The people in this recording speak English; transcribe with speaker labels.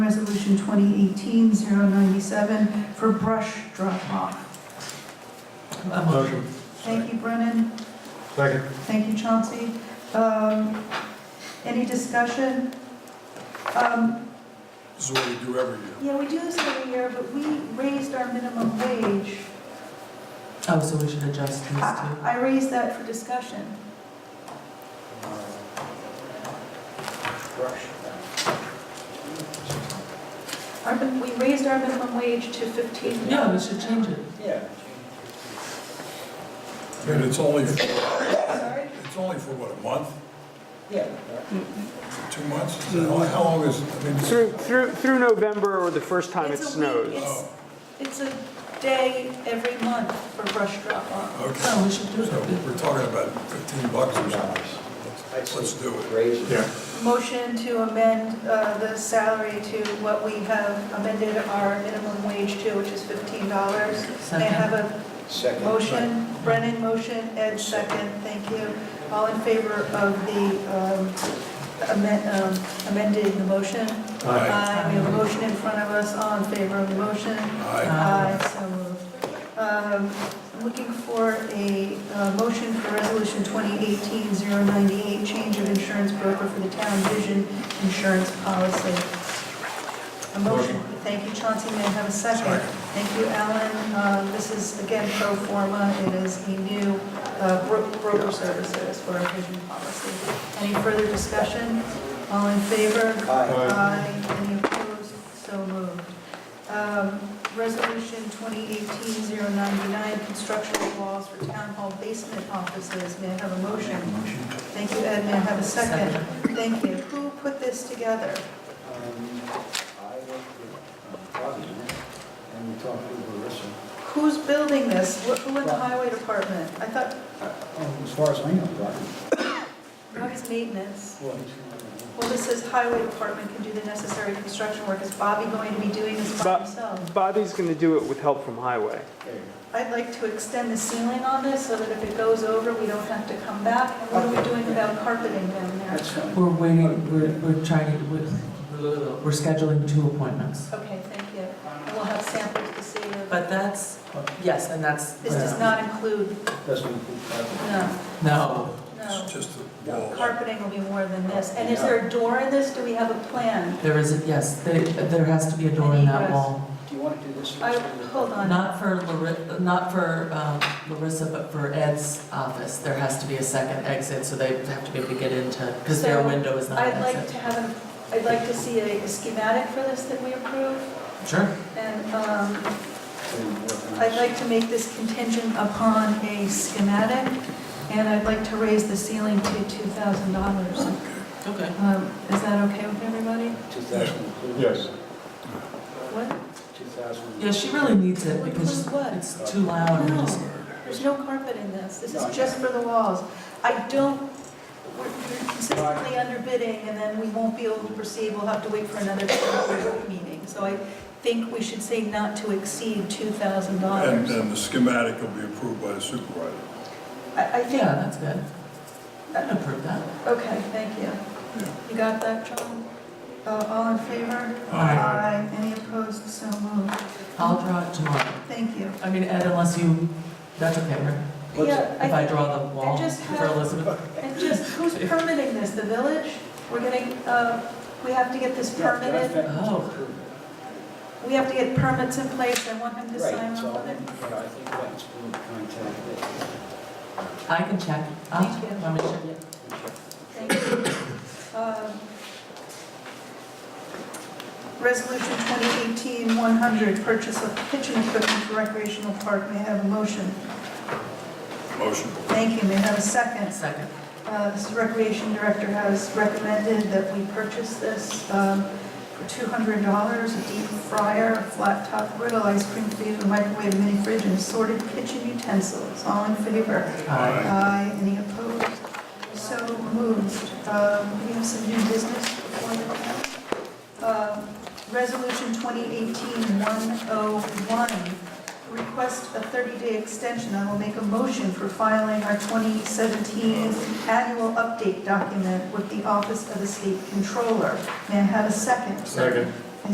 Speaker 1: Resolution 2018-097 for brush drop-off.
Speaker 2: Motion.
Speaker 1: Thank you, Brennan.
Speaker 2: Second.
Speaker 1: Thank you, Chauncey. Um, Any discussion? Um,
Speaker 2: This is what we do every year.
Speaker 1: Yeah, we do this every year, but we raised our minimum wage.
Speaker 3: Oh, so we should adjust these
Speaker 1: I
Speaker 3: too.
Speaker 1: I raised that for discussion. Our min- We raised our minimum wage to 15.
Speaker 3: Yeah, we should change it.
Speaker 4: Yeah.
Speaker 2: And it's only, for-
Speaker 1: Sorry?
Speaker 2: it's only for what, a month,
Speaker 4: Yeah.
Speaker 2: two months? Is that all- How long is, I mean, it's-
Speaker 5: Through, through, through November or the first time it
Speaker 1: It's a week.
Speaker 5: snows.
Speaker 1: It's- It's a day every month for brush drop-off.
Speaker 2: okay,
Speaker 3: No, we should do
Speaker 2: so
Speaker 3: it.
Speaker 2: we're talking about 15 bucks or something.
Speaker 4: I'd say
Speaker 2: Let's do it.
Speaker 4: raise it.
Speaker 1: Motion to amend uh, the salary to what we have amended our minimum wage to, which is $15. May I have a
Speaker 4: Second.
Speaker 1: motion? Brennan, motion, Ed, second, thank you. All in favor of the um, amen- um, amending the motion?
Speaker 2: Aye.
Speaker 1: We have a motion in front of us, all in favor of the motion?
Speaker 2: Aye.
Speaker 3: Aye.
Speaker 1: Aye, so moved. Um, I'm Looking for a uh, motion for Resolution 2018-098, change of insurance broker for the town vision insurance policy. A motion, thank you, Chauncey, may I have a second?
Speaker 2: Second.
Speaker 1: Thank you, Alan. Uh, This is, again, pro forma, it is a new uh, bro- broker services for our vision policy. Any further discussion? All in favor?
Speaker 4: Aye.
Speaker 1: Aye. Any opposed? So moved. Um, Resolution 2018-099, construction of walls for town hall basement offices. May I have a motion? Thank you, Ed. May I have a second? Thank you. Who put this together?
Speaker 4: Um, I worked with um, Bobby, and we talked with Larissa.
Speaker 1: Who's building this? Wh- Who in the highway department? I thought,
Speaker 4: Oh, As far as I know, Bobby.
Speaker 1: what is maintenance?
Speaker 4: Well, he's-
Speaker 1: Well, this says highway department can do the necessary construction work. Is Bobby going to be doing this by
Speaker 5: Bob-
Speaker 1: himself?
Speaker 5: Bobby's going to do it with help from Highway.
Speaker 4: there you
Speaker 1: I'd like to extend the ceiling on this so that if it goes over, we don't have to come back. And what are we doing about carpeting down
Speaker 4: go.
Speaker 1: there?
Speaker 4: That's fine.
Speaker 3: We're waiting, we're, we're trying to, we're, we're scheduling two appointments.
Speaker 1: Okay, thank you. And we'll have samples to see if,
Speaker 3: But that's, yes, and that's.
Speaker 1: this does not include,
Speaker 4: Doesn't include Bobby.
Speaker 1: no,
Speaker 3: No,
Speaker 1: no.
Speaker 2: It's just the walls.
Speaker 1: Carpeting will be more than this. And is there a door in this? Do we have a plan?
Speaker 3: there isn't, yes, there, there has to be a door in that wall.
Speaker 4: Do you want to do this?
Speaker 1: I,
Speaker 4: first?
Speaker 1: hold on.
Speaker 3: Not for Larissa, not for um, Larissa, but for Ed's office, there has to be a second exit, so they have to be able to get into, because their
Speaker 1: So,
Speaker 3: window is not
Speaker 1: I'd
Speaker 3: an
Speaker 1: like
Speaker 3: exit.
Speaker 1: to have, an- I'd like to see a schematic for this that we approve.
Speaker 3: Sure,
Speaker 1: And um,
Speaker 4: So you work on
Speaker 1: I'd
Speaker 4: this.
Speaker 1: like to make this contingent upon a schematic, and I'd like to raise the ceiling to $2,000.
Speaker 3: okay.
Speaker 1: Um, Is that okay with everybody?
Speaker 4: 2,000 includes.
Speaker 2: Yes.
Speaker 1: What?
Speaker 4: 2,000.
Speaker 3: Yeah, she really needs it because
Speaker 1: Include what?
Speaker 3: it's too loud and just.
Speaker 1: There's no carpet in this, this is just for the walls. I don't, we're we're consistently underbidding, and then we won't be able to proceed, we'll have to wait for another public meeting. So I think we should say not to exceed
Speaker 2: And uh,
Speaker 1: $2,000.
Speaker 2: then the schematic will be approved by the supervisor.
Speaker 1: I I
Speaker 3: Yeah,
Speaker 1: think,
Speaker 3: that's good. I'd approve that.
Speaker 1: okay, thank you. You got that, John? Uh, All in favor?
Speaker 2: Aye.
Speaker 1: Any opposed? So moved.
Speaker 3: I'll draw it tomorrow.
Speaker 1: Thank you.
Speaker 3: I mean, Ed, unless you, that's okay, right?
Speaker 4: What's
Speaker 1: Yeah,
Speaker 3: If I
Speaker 1: think-
Speaker 3: draw the wall
Speaker 1: just
Speaker 3: for
Speaker 1: have-
Speaker 3: Elizabeth?
Speaker 1: And just, who's permitting this, the village? We're getting, uh, we have to get this
Speaker 4: Yeah, that's
Speaker 1: permitted?
Speaker 4: been-
Speaker 3: Oh.
Speaker 1: We have to get permits in place, I want him to
Speaker 4: Right,
Speaker 1: sign
Speaker 4: so,
Speaker 1: off on it.
Speaker 4: yeah, I think that's good contact.
Speaker 3: I can check. I'll-
Speaker 1: Thank you.
Speaker 3: Let me check.
Speaker 1: Thank you. Um, Resolution 2018-100, purchase of kitchen equipment for recreational park, may I have a motion?
Speaker 2: Motion.
Speaker 1: Thank you, may I have a second?
Speaker 3: Second.
Speaker 1: Uh, This is Recreation Director has recommended that we purchase this um, for $200, a deep fryer, a flat top griddle, ice cream freezer, microwave, mini fridge, and assorted kitchen utensils. All in favor?
Speaker 2: Aye.
Speaker 1: Aye. Any opposed? So moved. Um, We have some new business before the panel. Um, Resolution 2018-101, request oh a 30-day extension. I will make a motion for filing our 2017 annual update document with the Office of the State Controller. May I have a second?
Speaker 2: Second.